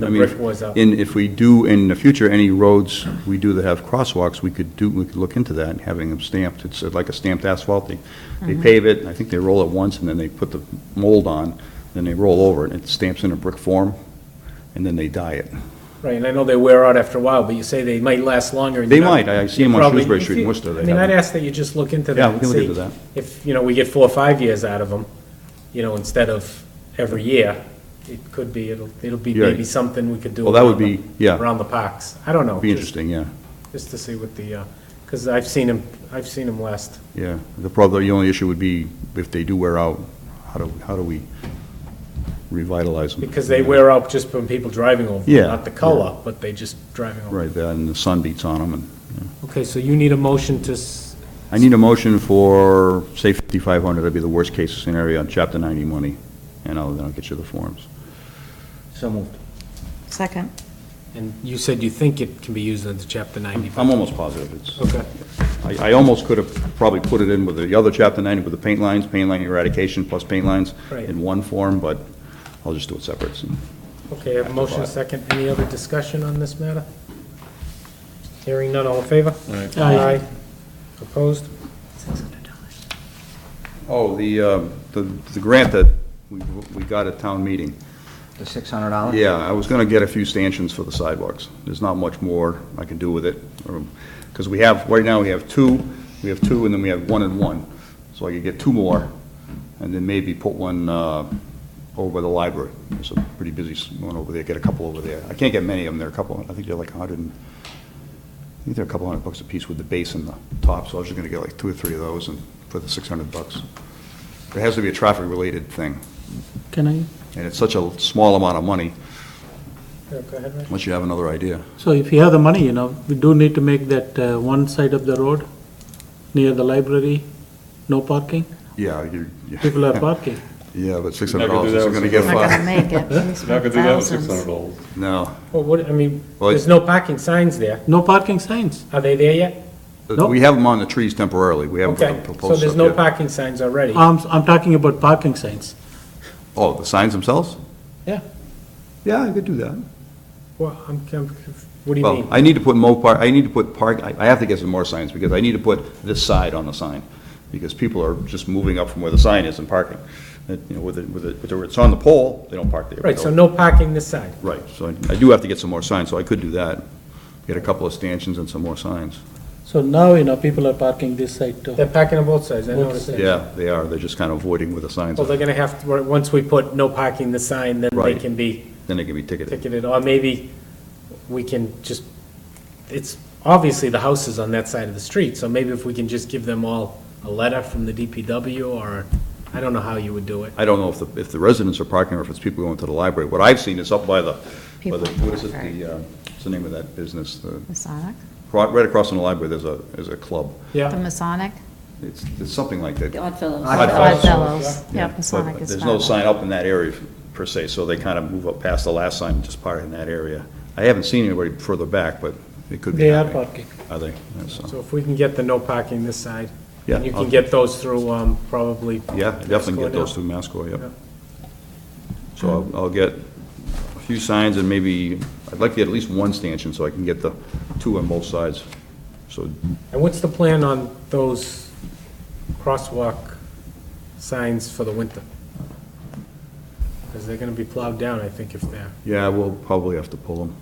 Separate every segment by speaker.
Speaker 1: The
Speaker 2: I mean,
Speaker 1: brick was up.
Speaker 2: And if we do, in the future, any roads we do that have crosswalks, we could do, we could look into that, and having them stamped, it's like a stamped asphalt, they, they pave it, I think they roll it once, and then they put the mold on, then they roll over it, and it stamps in a brick form, and then they dye it.
Speaker 1: Right, and I know they wear out after a while, but you say they might last longer. and
Speaker 2: They
Speaker 1: you're not-
Speaker 2: might. I- I see 'em on
Speaker 1: Probably-
Speaker 2: Shrewsbury
Speaker 1: if
Speaker 2: Street in
Speaker 1: you-
Speaker 2: Worcester. They
Speaker 1: I mean,
Speaker 2: have
Speaker 1: I'd
Speaker 2: 'em.
Speaker 1: ask that you just look into that.
Speaker 2: Yeah, we
Speaker 1: and
Speaker 2: can look
Speaker 1: see
Speaker 2: into that.
Speaker 1: If, you know, we get four or five years out of them, you know, instead of every year, it could be, it'll, it'll be
Speaker 2: Yeah.
Speaker 1: maybe something we could do.
Speaker 2: Well, that would
Speaker 1: around the-
Speaker 2: be- yeah.
Speaker 1: Around the parks. I don't know.
Speaker 2: Be
Speaker 1: just-
Speaker 2: interesting, yeah,
Speaker 1: Just to see what the, because I've seen them, I've seen them last.
Speaker 2: yeah. The problem, the only issue would be if they do wear out, how do, how do we revitalize them?
Speaker 1: Because they wear out just from people driving over. them,
Speaker 2: Yeah,
Speaker 1: Not the
Speaker 2: yeah.
Speaker 1: color, but they just driving over.
Speaker 2: Right, and the sun beats on them, and
Speaker 1: Okay, so you need a motion to, s-
Speaker 2: I need a motion for, say, 5,500, that'd be the worst-case scenario on Chapter 90 money, and I'll, then I'll get you the forms.
Speaker 3: So moved.
Speaker 4: Second.
Speaker 1: and you said you think it can be used under Chapter 90.
Speaker 2: I'm almost positive, it's,
Speaker 1: Okay.
Speaker 2: I, I almost could have probably put it in with the other Chapter 90, with the paint lines, paint line eradication plus paint lines
Speaker 1: Right.
Speaker 2: in one form, but I'll just do it separate.
Speaker 1: Okay, I have a motion,
Speaker 2: After five.
Speaker 1: second. Any other discussion on this matter? Hearing none, all in favor? Aye. Opposed?
Speaker 2: Oh, the, uh, the the grant that we we got at town meeting,
Speaker 3: The $600?
Speaker 2: Yeah, I was gonna get a few stanchions for the sidewalks. There's not much more I can do with it. Because we have, right now, we have two, we have two, and then we have one and one. So I could get two more, and then maybe put one uh, over by the library. There's a pretty busy s- one over there, get a couple over there. I can't get many of them, there are a couple, I think they're like a hundred and, I think they're a couple hundred bucks a piece with the base and the top, so I was just gonna get like two or three of those and for the six hundred bucks. It has to be a traffic-related thing,
Speaker 5: Can I,
Speaker 2: and it's such a small amount of money,
Speaker 1: Yeah, Go ahead, Rich.
Speaker 2: unless you have another idea.
Speaker 5: so if you have the money, you know, we do need to make that uh, one side of the road near the library, no parking.
Speaker 2: Yeah, you're, yeah,
Speaker 5: People are parking.
Speaker 2: yeah, but six
Speaker 6: Not
Speaker 2: hundred
Speaker 6: gonna
Speaker 2: dollars
Speaker 6: do that
Speaker 2: isn't gonna get
Speaker 4: Not gonna
Speaker 2: far.
Speaker 4: make it. We
Speaker 6: Not gonna
Speaker 4: spent
Speaker 6: do that with six
Speaker 4: thousands.
Speaker 6: hundred dollars.
Speaker 2: No.
Speaker 1: Well, what, I mean,
Speaker 2: Well,
Speaker 1: there's no parking signs there.
Speaker 5: No parking signs.
Speaker 1: Are they there yet?
Speaker 5: Nope.
Speaker 2: We have them on the trees temporarily, we haven't put
Speaker 1: Okay,
Speaker 2: them
Speaker 1: so
Speaker 2: proposed
Speaker 1: there's
Speaker 2: up
Speaker 1: no
Speaker 2: yet.
Speaker 1: parking signs already.
Speaker 5: I'm, I'm talking about parking signs.
Speaker 2: Oh, the signs themselves?
Speaker 5: Yeah.
Speaker 2: Yeah, I could do that.
Speaker 1: Well, I'm, I'm conf- what do you
Speaker 2: Well,
Speaker 1: mean?
Speaker 2: I need to put Mo Park, I need to put park, I, I have to get some more signs, because I need to put this side on the sign, because people are just moving up from where the sign is and parking. And, you know, with it, with it, whether it's on the pole, they don't park there.
Speaker 1: Right, so
Speaker 2: They'll-
Speaker 1: no parking this side.
Speaker 2: Right, so I I do have to get some more signs, so I could do that. Get a couple of stanchions and some more signs.
Speaker 5: So now, you know, people are parking this side too.
Speaker 1: They're parking on both sides, I noticed that.
Speaker 2: Yeah, they are, they're just kind of avoiding where the signs
Speaker 1: Well, they're
Speaker 2: are,
Speaker 1: gonna have, to once we put no parking the sign, then they
Speaker 2: Right.
Speaker 1: can be
Speaker 2: then they can be ticketed.
Speaker 1: ticketed, or maybe we can just, it's, obviously the house is on that side of the street, so maybe if we can just give them all a letter from the DPW, or, I don't know how you would do it.
Speaker 2: I don't know if the, if the residents are parking or if it's people going to the library. What I've seen is up by the, by the,
Speaker 4: People
Speaker 2: what is it,
Speaker 4: park, right.
Speaker 2: the, uh, what's the name of that business? The-
Speaker 4: Masonic?
Speaker 2: Right across from the library, there's a, there's a club.
Speaker 4: The
Speaker 1: Yeah,
Speaker 4: Masonic?
Speaker 2: It's, it's something like that.
Speaker 3: Odd
Speaker 4: Odd
Speaker 3: Fellows.
Speaker 4: Fellows.
Speaker 2: Yeah,
Speaker 4: Yeah,
Speaker 2: but
Speaker 4: Masonic is.
Speaker 2: There's no
Speaker 4: Fellows.
Speaker 2: sign up in that area per se, so they kind of move up past the last sign and just park in that area. I haven't seen anybody further back, but it could be
Speaker 5: They are
Speaker 2: happening.
Speaker 5: parking.
Speaker 2: Are they? Yeah, so-
Speaker 1: so if we can get the no parking this side,
Speaker 2: Yeah,
Speaker 1: and you
Speaker 2: I'll-
Speaker 1: can get those through, um, probably.
Speaker 2: Yeah, definitely get those
Speaker 1: Masco
Speaker 2: through Masco,
Speaker 1: Yeah.
Speaker 2: yep. So I'll- I'll get a few signs and maybe, I'd like to get at least one stanchion so I can get the two on both sides. So
Speaker 1: now. And what's the plan on those crosswalk signs for the winter? Because they're gonna be plowed down, I think, if they're.
Speaker 2: Yeah, we'll probably have to pull them.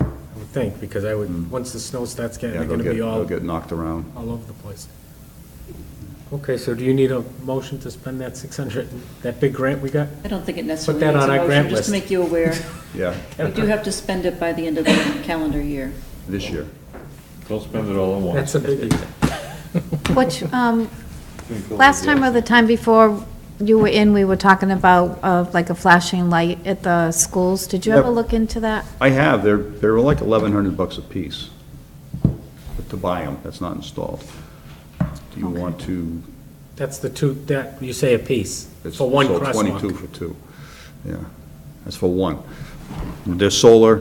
Speaker 1: I would think, because I would, once the snow starts getting,
Speaker 2: Mm. Yeah,
Speaker 1: they're
Speaker 2: they'll
Speaker 1: gonna
Speaker 2: get,
Speaker 1: be
Speaker 2: they'll
Speaker 1: all,
Speaker 2: get knocked around.
Speaker 1: all over the place. Okay, so do you need a motion to spend that six hundred, that big grant we got?
Speaker 7: I don't think it necessarily
Speaker 1: that
Speaker 7: needs
Speaker 1: on
Speaker 7: a
Speaker 1: our grant
Speaker 7: motion, just
Speaker 1: list.
Speaker 7: to make you aware.
Speaker 2: Yeah,
Speaker 7: We do have to spend it by the end of the calendar year.
Speaker 2: this year.
Speaker 6: Don't spend it all at once.
Speaker 1: That's a biggie.
Speaker 4: Which, um, last time or the time before you were in, we were talking about, uh, like a flashing light at the schools. Did you ever
Speaker 2: Yep.
Speaker 4: look into that?
Speaker 2: I have, they're, they're like eleven hundred bucks a piece But to buy them, that's not installed. Do you want to?
Speaker 1: That's the two, that, you say a piece,
Speaker 2: it's-
Speaker 1: for one
Speaker 2: so Twenty-two
Speaker 1: crosswalk.
Speaker 2: for two, yeah, that's for one. They're solar,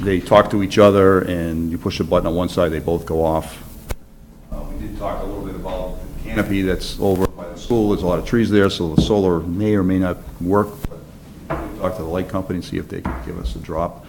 Speaker 2: they talk to each other, and you push a button on one side, they both go off. Uh, We did talk a little bit about the canopy that's over by the school, there's a lot of trees there, so the solar may or may not work, but talk to the light company and see if they can give us a drop.